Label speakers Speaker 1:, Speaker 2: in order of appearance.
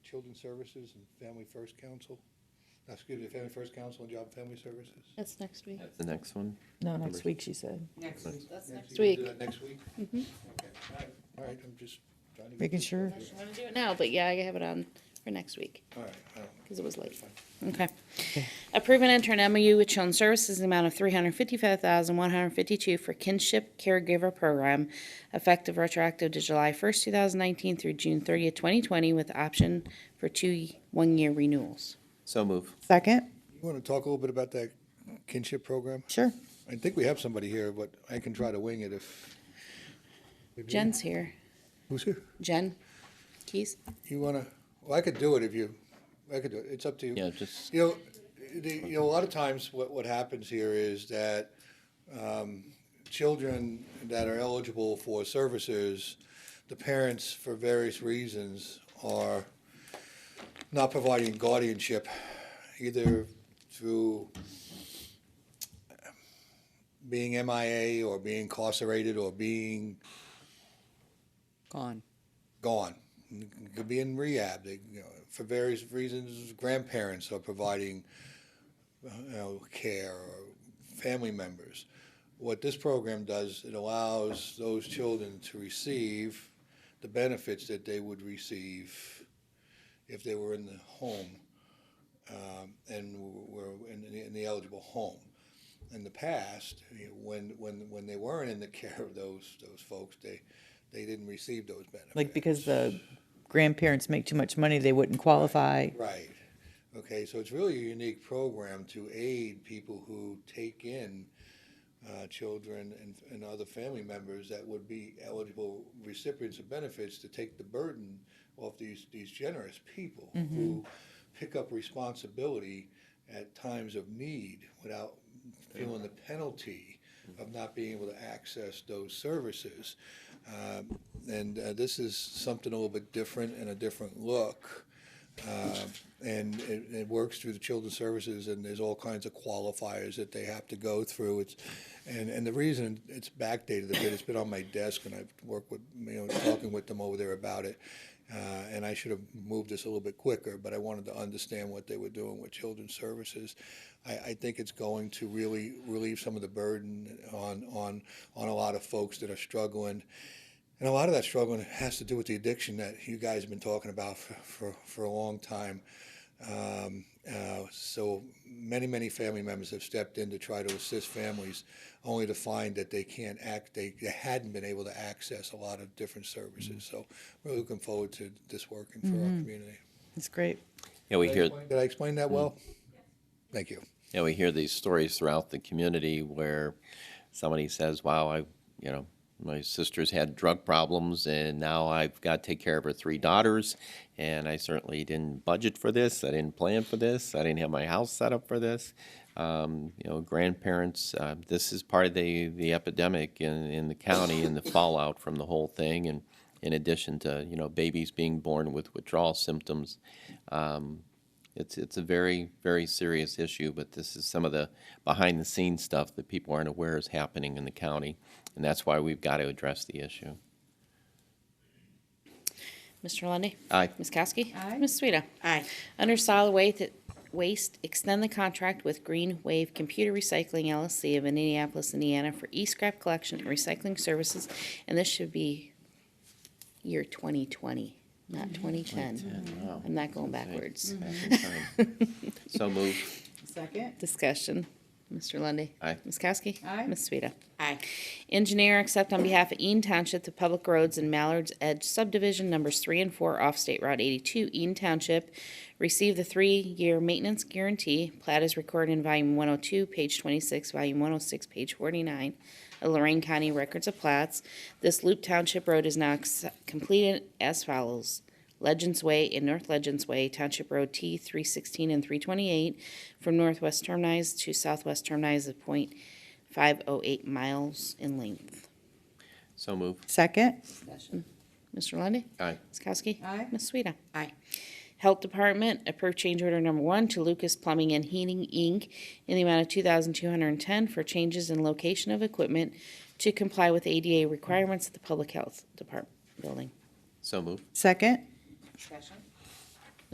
Speaker 1: Children's Services and Family First Council. No, Excuse me, Family First Council and Job and Family Services.
Speaker 2: That's next week.
Speaker 3: The next one?
Speaker 4: No,
Speaker 3: Numbers.
Speaker 4: next week, she said.
Speaker 5: Next week.
Speaker 2: That's
Speaker 1: Nancy,
Speaker 2: next
Speaker 1: you gonna do
Speaker 2: week.
Speaker 1: that Next week?
Speaker 2: Mhm.
Speaker 1: Okay, all right, all right, I'm just trying to. get
Speaker 4: Making
Speaker 1: this
Speaker 4: sure.
Speaker 1: done here.
Speaker 2: I'm gonna do it now, but yeah, I have it on for next week,
Speaker 1: All right, um, all right.
Speaker 2: because it was late.
Speaker 1: Fine.
Speaker 2: Okay. Approve and enter an MOU with Children's Services in the amount of three hundred fifty-five thousand, one hundred fifty-two for kinship caregiver program, effective retroactive to July first, two thousand nineteen through June thirtieth, twenty twenty, with option for two one-year renewals.
Speaker 3: So move.
Speaker 4: Second?
Speaker 1: You want to talk a little bit about that kinship program?
Speaker 4: Sure.
Speaker 1: I think we have somebody here, but I can try to wing it if.
Speaker 2: Jen's here.
Speaker 1: Who's here?
Speaker 2: Jen Keys?
Speaker 1: You want to, well, I could do it if you, I could do it, it's up to you.
Speaker 3: Yeah, just,
Speaker 1: You know, the, you know, a lot of times what, what happens here is that, um, children that are eligible for services, the parents, for various reasons, are not providing guardianship, either through being MIA or being incarcerated or being
Speaker 5: Gone.
Speaker 1: gone. Could be in rehab. They, you know, for various reasons, grandparents are providing uh, you know, care or family members. What this program does, it allows those children to receive the benefits that they would receive if they were in the home um, and were in the, in the eligible home. In the past, you know, when when when they weren't in the care of those those folks, they they didn't receive those benefits.
Speaker 4: Like, because the grandparents make too much money, they wouldn't qualify.
Speaker 1: Right. Okay, so it's really a unique program to aid people who take in uh, children and, and other family members that would be eligible recipients of benefits to take the burden off these, these generous people who pick up responsibility at times of need without feeling the penalty of not being able to access those services. Um, and uh, this is something a little bit different and a different look. Um, and it, it works through the children's services, and there's all kinds of qualifiers that they have to go through. It's, and, and the reason it's backdated a bit, it's been on my desk, and I've worked with, you know, talking with them over there about it. Uh, and I should have moved this a little bit quicker, but I wanted to understand what they were doing with children's services. I, I think it's going to really relieve some of the burden on, on, on a lot of folks that are struggling. And a lot of that struggling has to do with the addiction that you guys have been talking about for, for, for a long time. Um, uh, so many, many family members have stepped in to try to assist families, only to find that they can't act, they, they hadn't been able to access a lot of different services. So we're looking forward to this working for our community.
Speaker 4: That's great.
Speaker 3: yeah, we
Speaker 1: Did I
Speaker 3: hear,
Speaker 1: explain- Did I explain that well? Thank you.
Speaker 3: yeah, we hear these stories throughout the community where somebody says, wow, I, you know, my sister's had drug problems and now I've got to take care of her three daughters. And I certainly didn't budget for this. I didn't plan for this. I didn't have my house set up for this. Um, you know, grandparents, uh, this is part of the, the epidemic in, in the county and the fallout from the whole thing. And in addition to, you know, babies being born with withdrawal symptoms, It's it's a very very serious issue, but this is some of the behind the scenes stuff that people aren't aware is happening in the county, and that's why we've got to address the issue.
Speaker 2: Mr. Lundy,
Speaker 3: Aye.
Speaker 2: Ms. Kowski?
Speaker 4: Aye.
Speaker 2: Ms. Sueda?
Speaker 5: Aye.
Speaker 2: Under solid waste, waste, extend the contract with Green Wave Computer Recycling LLC of Indianapolis, Indiana for e-scrap collection and recycling services, and this should be year twenty twenty, not twenty ten.
Speaker 3: Wow.
Speaker 2: I'm not going backwards.
Speaker 3: so move.
Speaker 5: Second.
Speaker 2: Discussion, Mr. Lundy.
Speaker 3: Aye.
Speaker 2: Ms. Kowski?
Speaker 5: Aye.
Speaker 2: Ms. Sueda?
Speaker 5: Aye.
Speaker 2: Engineer accept on behalf of Eaton Township the public roads in Mallard's Edge subdivision numbers three and four off State Route eighty-two, Eaton Township. Receive the three-year maintenance guarantee. Plat is recorded in volume one oh two, page twenty-six, volume one oh six, page forty-nine of Lorraine County Records of Plats. This Loop Township Road is now ex- completed as follows. Legends Way and North Legends Way, Township Road T three sixteen and three twenty-eight, from northwest terminus to southwest terminus of point 508 miles in length.
Speaker 3: So move.
Speaker 4: Second?
Speaker 5: Discussion.
Speaker 2: Mr. Lundy,
Speaker 3: Aye.
Speaker 2: Ms. Kowski?
Speaker 5: Aye.
Speaker 2: Ms. Sueda?
Speaker 5: Aye.
Speaker 2: Health Department, approve change order number one to Lucas Plumbing and Heating, Inc. in the amount of 2210 for changes in location of equipment to comply with ADA requirements at the Public Health Department building.
Speaker 3: So move.
Speaker 4: Second?
Speaker 5: Discussion.